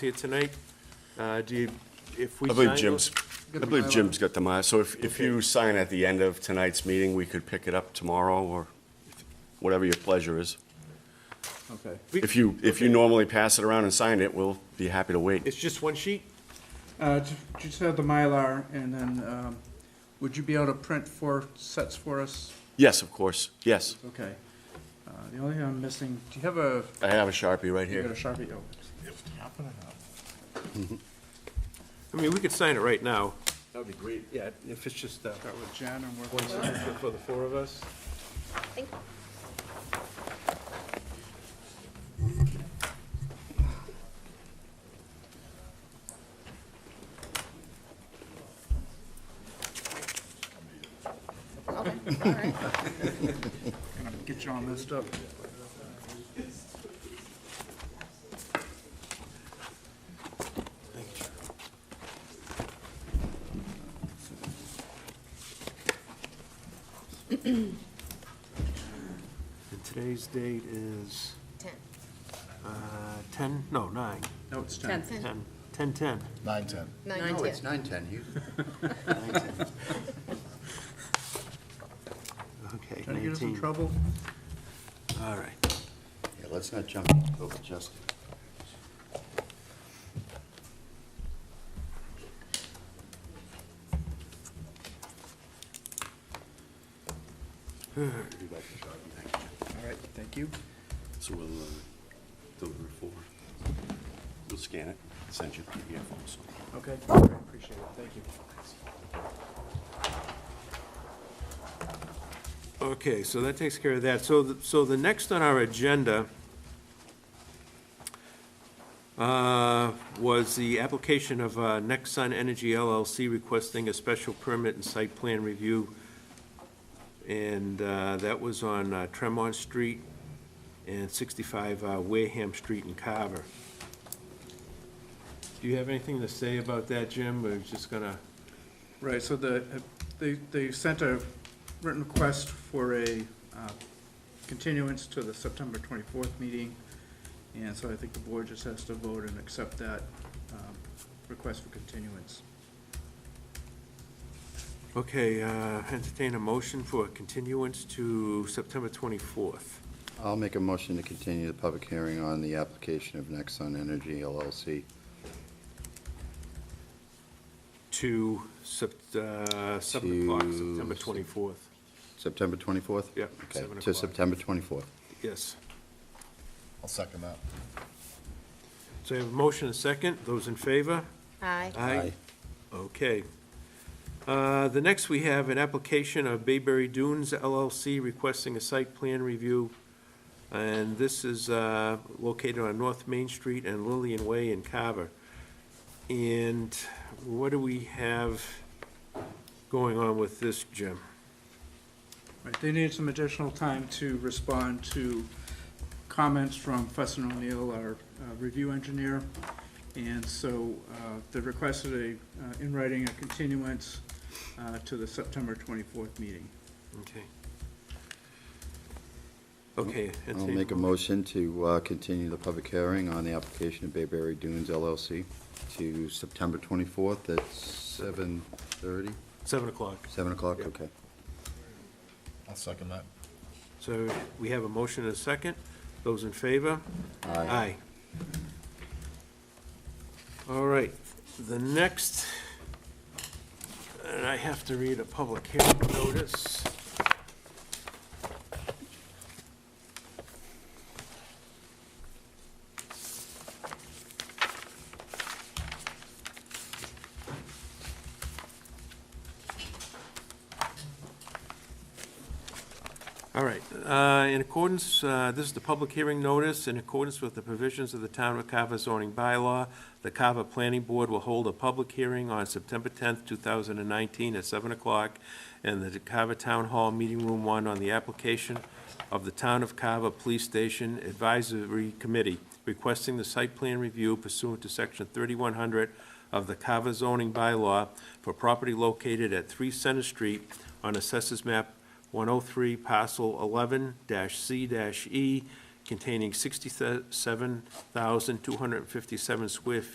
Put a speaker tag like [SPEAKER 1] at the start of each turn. [SPEAKER 1] here tonight. Uh, Do you, if we
[SPEAKER 2] I
[SPEAKER 1] sign
[SPEAKER 2] believe
[SPEAKER 1] those-
[SPEAKER 2] Jim's, I believe Jim's got the mile. So if, if you sign at the end of tonight's meeting, we could pick it up tomorrow or whatever your pleasure is.
[SPEAKER 3] Okay.
[SPEAKER 1] We-
[SPEAKER 2] If you, if you
[SPEAKER 1] okay.
[SPEAKER 2] normally pass it around and sign it, we'll be happy to wait.
[SPEAKER 1] It's just one sheet?
[SPEAKER 3] Uh, ju- Just have the Mylar, and then um, would you be able to print four sets for us?
[SPEAKER 2] Yes, of course, yes.
[SPEAKER 3] Okay. Uh, The only thing I'm missing, do you have a,
[SPEAKER 2] I have a Sharpie right
[SPEAKER 3] you got a
[SPEAKER 2] here.
[SPEAKER 3] Sharpie? Oh,
[SPEAKER 1] I mean, we could sign it right now.
[SPEAKER 4] That'd be great.
[SPEAKER 1] Yeah, if it's just uh,
[SPEAKER 3] Start with Jen and work
[SPEAKER 1] one
[SPEAKER 3] with
[SPEAKER 1] signature for the four of us.
[SPEAKER 5] Thank Okay, all right.
[SPEAKER 3] Get you all messed up.
[SPEAKER 1] And today's date is
[SPEAKER 5] Ten.
[SPEAKER 1] uh, 10, no, 9,
[SPEAKER 3] No, it's ten.
[SPEAKER 6] Tenth.
[SPEAKER 1] 10, 10, 10.
[SPEAKER 4] Nine ten.
[SPEAKER 5] Nine,
[SPEAKER 4] No,
[SPEAKER 5] ten.
[SPEAKER 4] it's nine ten. You,
[SPEAKER 1] Okay,
[SPEAKER 3] Trying to get us in
[SPEAKER 1] 19.
[SPEAKER 3] trouble?
[SPEAKER 1] All right.
[SPEAKER 4] yeah, let's not jump over Justin.
[SPEAKER 3] All right, thank you.
[SPEAKER 2] So we'll uh, deliver it forward. We'll scan it, send you the PDF also.
[SPEAKER 3] Okay, all right, appreciate it, thank you.
[SPEAKER 1] Okay, so that takes care of that. So, the- so the next on our agenda uh, was the application of uh, Nexon Energy LLC requesting a special permit and site plan review. And uh, that was on uh, Tremont Street and 65 uh, Wareham Street in Carver. Do you have anything to say about that, Jim? We're just gonna,
[SPEAKER 3] Right, so the, uh, they, they sent a written request for a uh, continuance to the September twenty-fourth meeting. And so I think the board just has to vote and accept that um, request for continuance.
[SPEAKER 1] okay, uh, entertain a motion for a continuance to September 24th.
[SPEAKER 4] I'll make a motion to continue the public hearing on the application of Nexon Energy LLC.
[SPEAKER 1] to Sept- uh, 7 o'clock, September 24th.
[SPEAKER 4] September twenty-fourth?
[SPEAKER 1] Yeah,
[SPEAKER 4] Okay,
[SPEAKER 1] seven
[SPEAKER 4] to
[SPEAKER 1] o'clock.
[SPEAKER 4] September twenty-fourth.
[SPEAKER 1] Yes.
[SPEAKER 7] I'll second that.
[SPEAKER 1] So I have a motion and a second. Those in favor?
[SPEAKER 5] Aye.
[SPEAKER 4] Aye.
[SPEAKER 1] Okay. Uh, The next, we have an application of Bayberry Dunes LLC requesting a site plan review. And this is uh, located on North Main Street and Lillian Way in Carver. And what do we have going on with this, Jim?
[SPEAKER 3] Right, they needed some additional time to respond to comments from Fussin O'Neill, our uh, review engineer. And so uh, they requested a, uh, in writing, a continuance uh, to the September twenty-fourth meeting.
[SPEAKER 1] Okay. Okay.
[SPEAKER 4] I'll
[SPEAKER 1] entertain-
[SPEAKER 4] make a motion to uh, continue the public hearing on the application of Bayberry Dunes LLC to September twenty-fourth at seven thirty,
[SPEAKER 1] 7 o'clock.
[SPEAKER 4] seven o'clock,
[SPEAKER 1] Yep.
[SPEAKER 4] okay.
[SPEAKER 7] I'll second that.
[SPEAKER 1] So we have a motion and a second. Those in favor? Aye. All right, the next, and I have to read a public hearing notice. All right, uh, in accordance, uh, this is the public hearing notice, in accordance with the provisions of the Town of Carver zoning bylaw, the Carver Planning Board will hold a public hearing on September 10th, 2019, at 7 o'clock in the Carver Town Hall Meeting Room 1 on the application of the Town of Carver Police Station Advisory Committee requesting the site plan review pursuant to Section 3100 of the Carver zoning bylaw for property located at 3 Center Street on Assessors Map 103, parcel E 11-C-E, containing 67,257 square feet.